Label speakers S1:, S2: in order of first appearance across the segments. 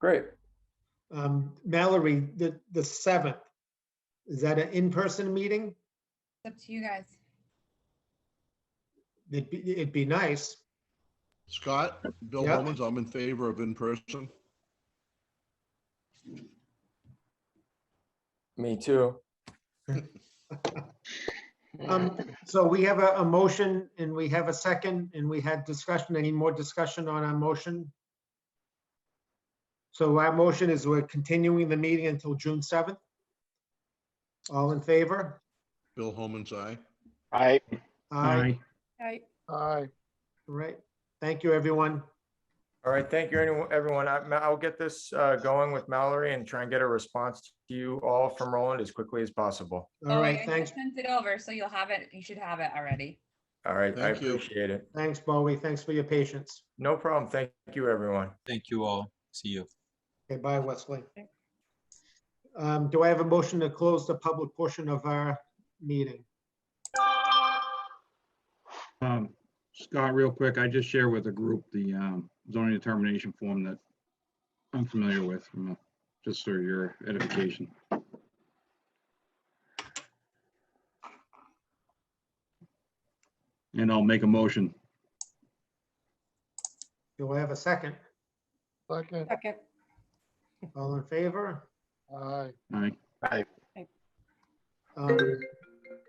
S1: Great.
S2: Um, Mallory, the, the seventh, is that an in-person meeting?
S3: It's up to you guys.
S2: It'd be, it'd be nice.
S4: Scott, Bill
S2: Yeah.
S4: Holman's, I'm in favor of in-person.
S1: Me too.
S2: Um, so we have a, a motion and we have a second and we had discussion. Any more discussion on our motion? So our motion is we're continuing the meeting until June seventh. All in favor?
S4: Bill Holman's, aye.
S5: Aye.
S2: Aye.
S3: Right.
S5: Aye.
S2: Right. Thank you, everyone.
S6: All right, thank you, anyone- everyone. I- Ma- I'll get this uh, going with Mallory and try and get a response to you all from Roland as quickly as possible.
S2: All
S3: Oh,
S2: right,
S3: I just
S2: thanks,
S3: Sent it over, so you'll have it, you should have it already.
S6: All right, I
S4: Thank you.
S6: appreciate it.
S2: thanks, Bowie. Thanks for your patience.
S6: No problem. Thank you, everyone.
S7: Thank you all. See you.
S2: Okay, bye, Wesley. Um, do I have a motion to close the public portion of our meeting?
S8: Um, Scott, real quick, I just share with the group the um, zoning determination form that I'm familiar with, you know, just for your edification. And I'll make a motion.
S2: Do I have a second?
S5: Second.
S3: Okay.
S2: All in favor?
S5: Aye.
S8: All right,
S2: Um,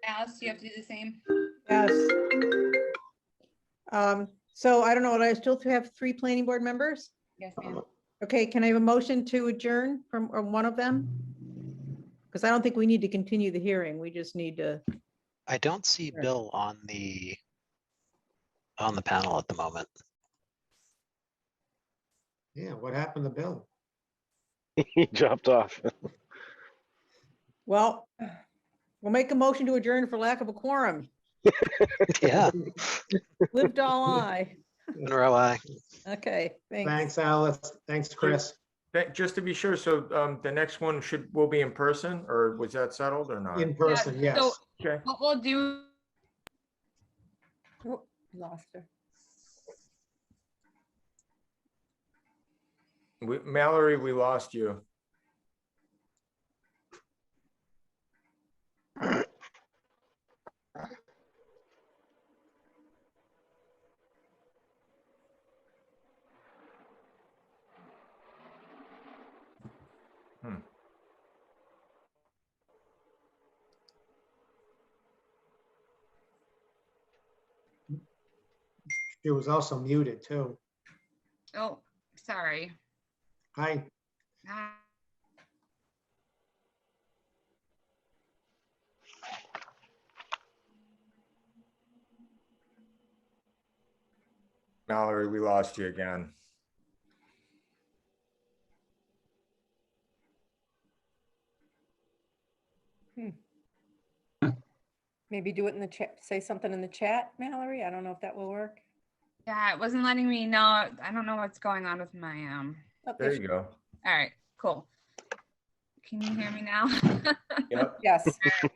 S3: Alice, do you have to do the same?
S9: Yes. Um, So I don't know, do I still have three planning board members?
S3: Yes, ma'am.
S2: Uh-huh.
S9: Okay, can I have a motion to adjourn from or one of them? Because I don't think we need to continue the hearing. We just need to,
S10: I don't see
S9: Sure.
S10: Bill on the on the panel at the moment.
S2: Yeah, what happened to Bill?
S5: He dropped off.
S9: well, we'll make a motion to adjourn for lack of a quorum.
S10: Yeah,
S9: Lived all I.
S10: Monroe, I.
S9: Okay, thanks.
S2: Thanks, Alice. Thanks, Chris.
S6: Thank- Just to be sure, so um, the next one should, will be in person or was that settled or not?
S2: In person,
S3: Yeah, so
S2: yes.
S6: Okay,
S3: What we'll do. Oh, Lost her.
S6: We- Mallory, we lost you.
S2: She was also muted too.
S3: Oh, sorry.
S2: Hi,
S3: Ah.
S6: Mallory, we lost you again.
S11: Maybe do it in the chat, say something in the chat, Mallory. I don't know if that will work.
S3: Yeah, it wasn't letting me know. I don't know what's going on with my, um,
S11: Oh, there
S6: There
S11: she-
S6: you go.
S3: all right, cool. Can you hear me now?
S6: Yep,
S11: Yes.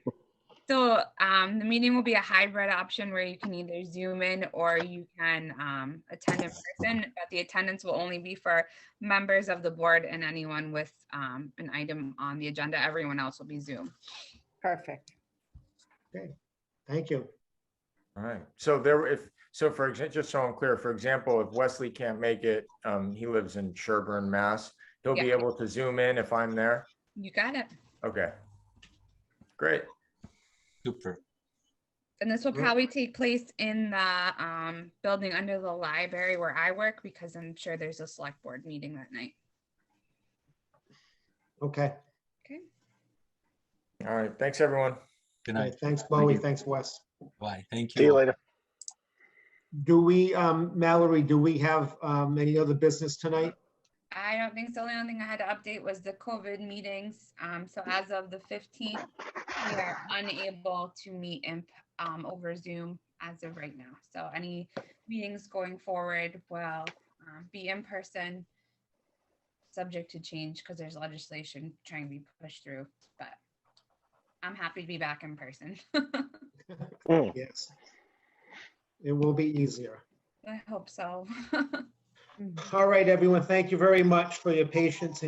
S3: So um, the meeting will be a hybrid option where you can either Zoom in or you can um, attend in person, but the attendance will only be for members of the board and anyone with um, an item on the agenda. Everyone else will be Zoom.
S11: Perfect.
S2: thank you.
S6: all right. So there, if, so for example, just so I'm clear, for example, if Wesley can't make it, um, he lives in Sherburne, Mass. He'll be
S3: Yeah.
S6: able to zoom in if I'm there.
S3: You got it.
S6: Okay. Great.
S7: Super.
S3: And this will
S2: Yeah.
S3: probably take place in the um, building under the library where I work because I'm sure there's a select board meeting that night.
S2: Okay,
S6: All right. Thanks, everyone.
S7: Good
S2: All right,
S7: night.
S2: thanks Bowie,
S7: you.
S2: thanks Wes.
S7: Bye. Thank you.
S5: See you
S7: all.
S5: later.
S2: Do we, um, Mallory, do we have, um, any other business tonight?
S3: I don't think so. The only thing I had to update was the COVID meetings. Um, so as of the fifteenth, we are unable to meet in, um, over Zoom as of right now. So any meetings going forward will, um, be in person, subject to change because there's legislation trying to be pushed through, but I'm happy to be back in person.
S2: Yes. It will be easier.
S3: I hope so.
S9: Hmm.
S2: All right, everyone, thank you very much for your patience and